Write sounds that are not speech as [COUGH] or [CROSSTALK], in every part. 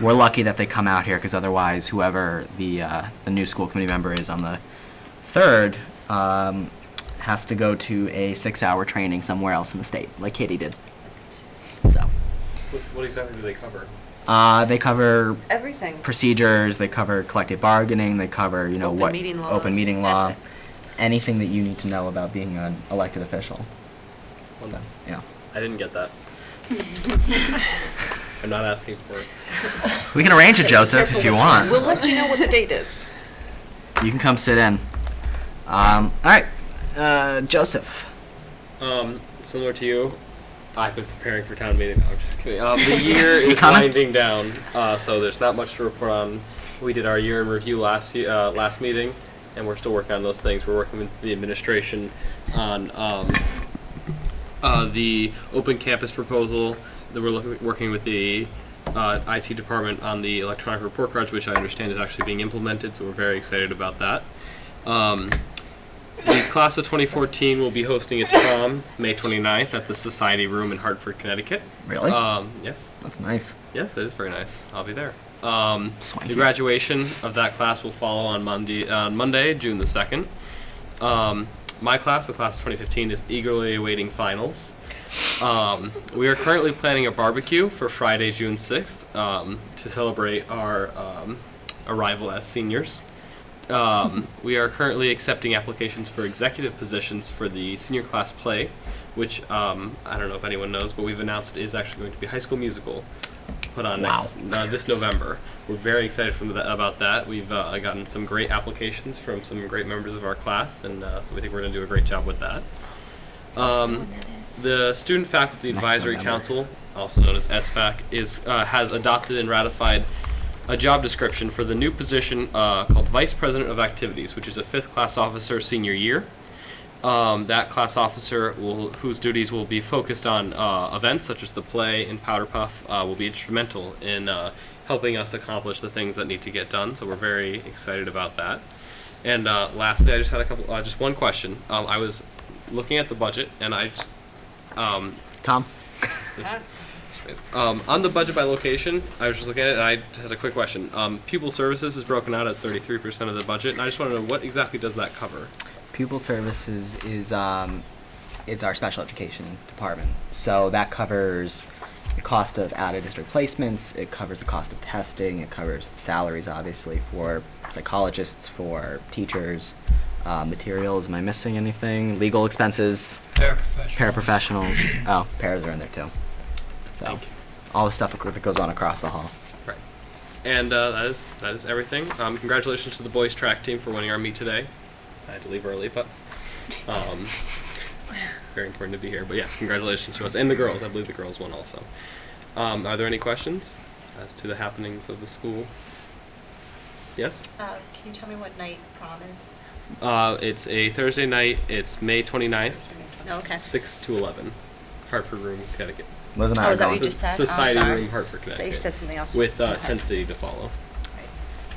we're lucky that they come out here, because otherwise whoever the, uh, the new school committee member is on the third, um, has to go to a six-hour training somewhere else in the state, like Katie did. So, What, what exactly do they cover? uh, they cover Everything. procedures, they cover collective bargaining, they cover, you know, Open what. meeting Open laws, meeting law, ethics. anything that you need to know about being an elected official. Well, So, yeah. I didn't get that. I'm not asking for it. We can arrange it, Joseph, if you want. We'll let you know what the date is. You can come sit in. Um, all right, uh, Joseph. Um, similar to you, I've been preparing for town meeting. No, I'm just kidding. Um, the year is Comment? winding down, uh, so there's not much to report on. We did our year in review last ye- uh, last meeting, and we're still working on those things. We're working with the administration on um, uh, the open campus proposal. That we're looking, working with the uh, IT department on the electronic report cards, which I understand is actually being implemented. So we're very excited about that. Um, the class of 2014 will be hosting its prom May 29th at the Society Room in Hartford, Connecticut. Really? Um, yes, That's nice. yes, it is very nice. I'll be there. Um, Swanky. the graduation of that class will follow on Monday, on Monday, June the 2nd. Um, my class, the class of 2015, is eagerly awaiting finals. Um, we are currently planning a barbecue for Friday, June 6th, um, to celebrate our um, arrival as seniors. Um, we are currently accepting applications for executive positions for the senior class play, which um, I don't know if anyone knows, but we've announced is actually going to be High School Musical, put on next, uh, this November. We're very excited from tha- about that. We've uh, gotten some great applications from some great members of our class, and uh, so we think we're going to do a great job with that. Um, the Student Faculty Next Advisory November. Council, also known as SFAC, is uh, has adopted and ratified a job description for the new position uh, called Vice President of Activities, which is a fifth class officer senior year. Um, that class officer will, whose duties will be focused on uh, events such as the play and Powder Puff uh, will be instrumental in uh, helping us accomplish the things that need to get done. So we're very excited about that. And uh, lastly, I just had a couple, uh, just one question. Um, I was looking at the budget and I, just- um, Tom. um, on the budget by location, I was just looking at it and I had a quick question. Um, pupil services is broken out as 33% of the budget, and I just want to know what exactly does that cover? Pupil services is um, it's our special education department. So that covers the cost of out of district placements. It covers the cost of testing. It covers the salaries, obviously, for psychologists, for teachers, uh, materials. Am I missing anything? Legal expenses. Paraprofessionals. [CLEARS THROAT] Oh, paras are in there too. So Thank you. all the stuff that goes on across the hall. Right. And uh, that is that is everything. Um, congratulations to the boys track team for winning our meet today. I had to leave early, but um, very important to be here. But yes, congratulations to us and the girls. I believe the girls won also. Um, are there any questions as to the happenings of the school? Yes. Uh, Can you tell me what night prom is? Uh, it's a Thursday night. It's May 29th, No, okay. 6 to 11, Hartford Room, Connecticut. Liz and I Oh, are is that what going. you just said? Oh, Society sorry. Room, Hartford, Connecticut. They said something else. with uh, Okay. Tent City to follow.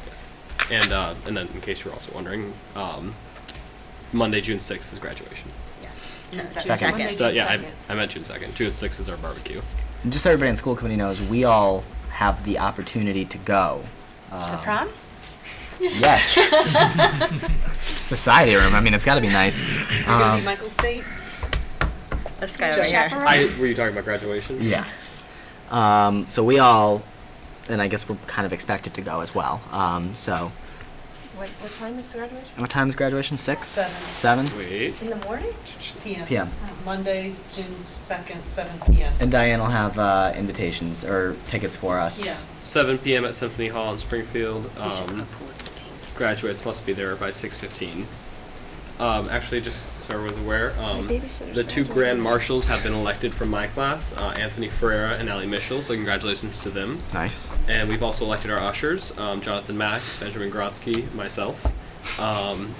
Yes. And uh, and then, in case you're also wondering, um, Monday, June sixth is graduation. Yes. June No, second. Second. second. So, Uh, yeah, I, I meant June second. June sixth is our barbecue. just so everybody in school committee knows, we all have the opportunity to go. To the Um, prom? Yes. Society room. I mean, it's got to be nice. Um, Michael State? This guy Just over here. chaperone? I were you talking about graduation? yeah. Um, so we all, and I guess we're kind of expected to go as well. Um, so, [LAUGHS] [LAUGHS] What, what time is graduation? what time is graduation? Six? Seven. Seven? Wait. In the morning? PM. PM. Monday, June second, seven PM. And Diane will have uh, invitations or tickets for us. Yeah. Seven p.m. at Symphony Hall in Springfield. Um, graduates must be there by six fifteen. Um, actually, just so everyone's aware, um, babysitter's the two graduating. grand marshals have been elected from my class, uh, Anthony Ferreira and Allie Michel. So congratulations to them. Nice. And we've also elected our ushers, um, Jonathan Mack, Benjamin Grotzky, myself, um,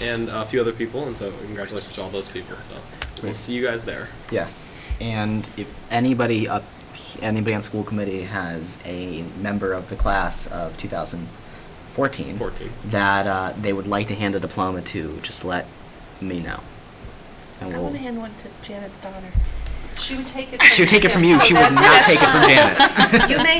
and a few other people. And so congratulations to all those people. So we'll Great. see you guys there. Yes, and if anybody up, anybody on school committee has a member of the class of 2014 14. that uh, they would like to hand a diploma to, just let me know. And we'll, one to Janet's daughter. She would take [LAUGHS] it. she would take it from you. So She [LAUGHS] that- would not take it from Janet. [LAUGHS] You may